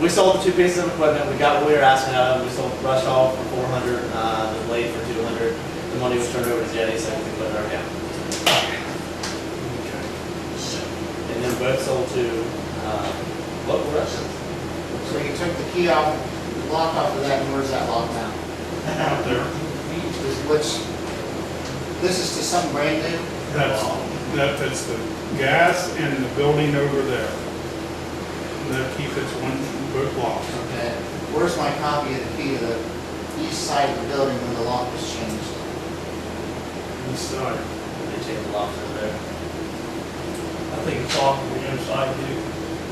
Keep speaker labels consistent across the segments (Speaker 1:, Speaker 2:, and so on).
Speaker 1: We sold the two pieces of equipment, we got what we were asking out of it, we sold Rush Hall for four hundred, uh, the blade for two hundred. The money was turned over to Jenny, so we could put it in our account. And then both sold to, uh, local restaurants.
Speaker 2: So you took the key off, the lock off of that, and where's that lock now?
Speaker 3: Out there.
Speaker 2: Is- Which, this is to some brand new?
Speaker 3: That's, that, that's the gas and the building over there. That keeps its one book locked.
Speaker 2: Okay. Where's my copy of the key to the east side of the building where the lock was changed?
Speaker 3: Inside.
Speaker 1: They changed the locks over there.
Speaker 4: I think it's off on the inside too.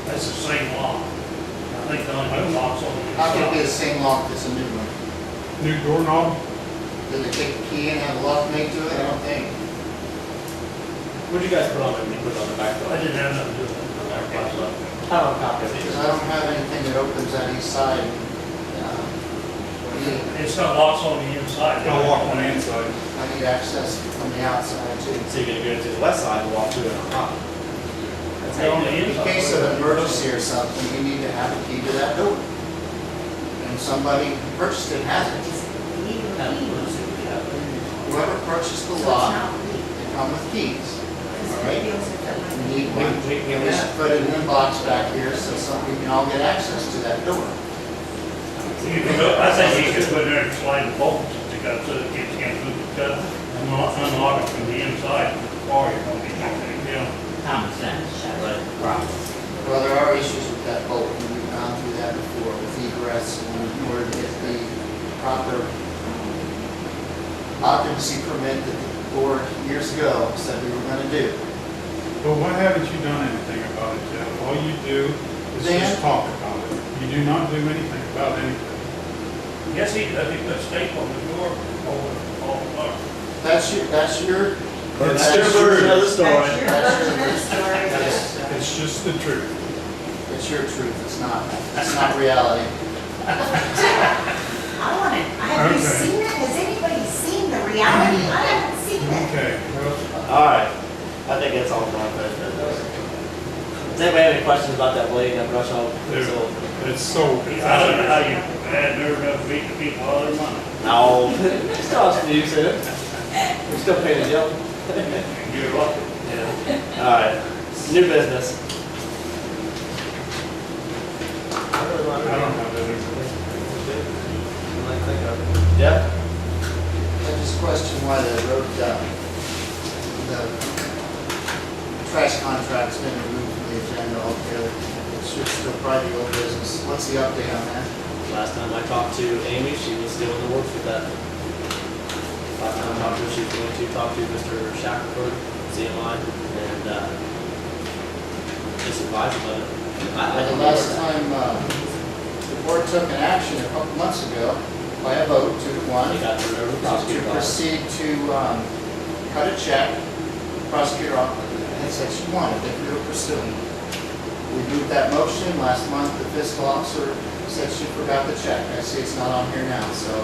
Speaker 4: That's the same lock. I think the only lock's on the
Speaker 2: How could it be the
Speaker 4: inside.
Speaker 2: same lock that's a new one?
Speaker 3: New doorknob,
Speaker 2: Did they take the key and have a lock made to it? I don't think.
Speaker 1: What'd you guys put on it? You put it on the back door?
Speaker 4: I didn't have nothing to do with it. Everybody's up.
Speaker 1: I don't copy it
Speaker 2: Because
Speaker 1: either.
Speaker 2: I don't have anything that opens that east side. uh, I need-
Speaker 4: It's got locks on the inside.
Speaker 3: got a lock on the inside.
Speaker 2: I need access from the outside too.
Speaker 1: So you're gonna go to the west side and walk through it on top. That's how you do it.
Speaker 2: In case of an emergency or something, you need to have a key to that door. And somebody purchased it, hasn't.
Speaker 1: Have an emergency, we have it.
Speaker 2: Whoever purchased the
Speaker 5: So it's
Speaker 2: lot,
Speaker 5: not legal,
Speaker 2: they come with keys.
Speaker 5: because
Speaker 2: All right.
Speaker 5: the bills are done.
Speaker 2: You need
Speaker 1: We,
Speaker 2: one.
Speaker 1: we, we
Speaker 2: And we should put it in a box back here so somebody can all get access to that door.
Speaker 4: You can go, I think you could go in there and slide the bolts to go so that kids can't move the cut. Unlock, unlock it from the inside, or you're gonna be knocking it down.
Speaker 6: Common sense,
Speaker 1: Right.
Speaker 6: problems.
Speaker 2: Well, there are issues with that bolt, and we've gone through that before with egress and where to get the proper occupancy permit that the board years ago said we were gonna do.
Speaker 3: But why haven't you done anything about it yet? All you do is just
Speaker 2: Dan?
Speaker 3: talk about it. You do not do anything about anything.
Speaker 4: Yes, he, does. he put tape on the door, over, all the lock.
Speaker 2: That's your, that's your,
Speaker 1: That's your version of the story.
Speaker 2: that's your
Speaker 5: That's your
Speaker 3: It's just the truth.
Speaker 2: It's your truth, it's not, it's not reality.
Speaker 5: story. I want to, have you
Speaker 3: Okay.
Speaker 5: seen it? Has anybody seen the reality? I haven't seen it.
Speaker 3: Okay, well,
Speaker 1: Alright, I think that's all for my question. Does anybody have any questions about that blade that brush off?
Speaker 3: There. it's sold. It's
Speaker 4: I don't know how
Speaker 3: out
Speaker 4: you had nerve enough to beat the people out of their money.
Speaker 1: No. It's not us, you said We're still paying the bill.
Speaker 4: You're lucky.
Speaker 1: Alright, new business. I really
Speaker 3: there.
Speaker 1: want
Speaker 3: I don't have anything.
Speaker 1: Yeah?
Speaker 2: I just question why the road, uh, the trash contract's been removed from the agenda altogether. It should still probably be old business. What's the update on that?
Speaker 1: Last time I talked to Amy, she was still in the works with that. Last time I talked to her, she was going to talk to Mr. Shackelford, CMI, and, uh, just advise him about it. I- I
Speaker 2: The
Speaker 1: don't know where
Speaker 2: last
Speaker 1: that-
Speaker 2: time, uh, the board took an action a couple months ago by a vote, two to one,
Speaker 1: You got the river
Speaker 2: to
Speaker 1: prosecutor box.
Speaker 2: proceed to, um, cut a check. Prosecutor had said she wanted, that we were pursuing. We moved that motion last month, the fiscal officer said she forgot the check. I see it's not on here now, so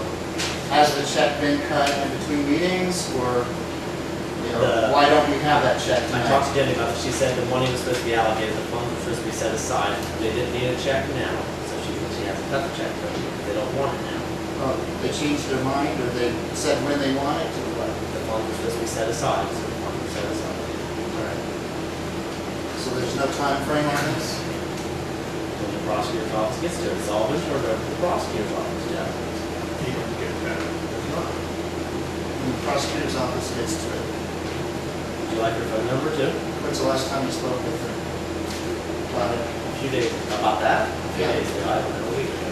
Speaker 2: has the check been cut in between meetings, or, you know,
Speaker 1: The-
Speaker 2: why don't we have that check
Speaker 1: I talked to
Speaker 2: tonight?
Speaker 1: Jenny about it, she said the money was supposed to be allocated, the funds were supposed to be set aside, they didn't need a check now, so she, she has to cut the check, but they don't want it now.
Speaker 2: Oh, They changed their mind, or they said when they want it, or what?
Speaker 1: The funds were supposed to be set aside, so the funds were set aside.
Speaker 2: So there's no time frame on this?
Speaker 1: When the prosecutor's office gets to resolve it, or the prosecutor's office, yeah.
Speaker 3: You don't get that.
Speaker 2: When the prosecutor's office gets to it.
Speaker 1: Would you like her phone number too?
Speaker 2: When's the last time you spoke with her? About it?
Speaker 1: A few days, about that, a few
Speaker 2: Yeah.
Speaker 1: days ago, I don't know, a week ago.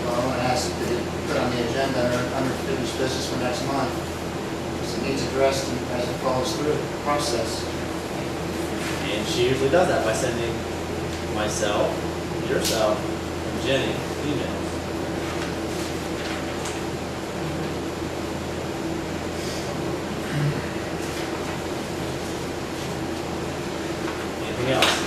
Speaker 2: Well, I want to ask that it put on the agenda under- under finished business for next month, because it needs addressed and as it follows through the process.
Speaker 1: And she usually does that by sending myself, yourself, and Jenny emails. Anything else?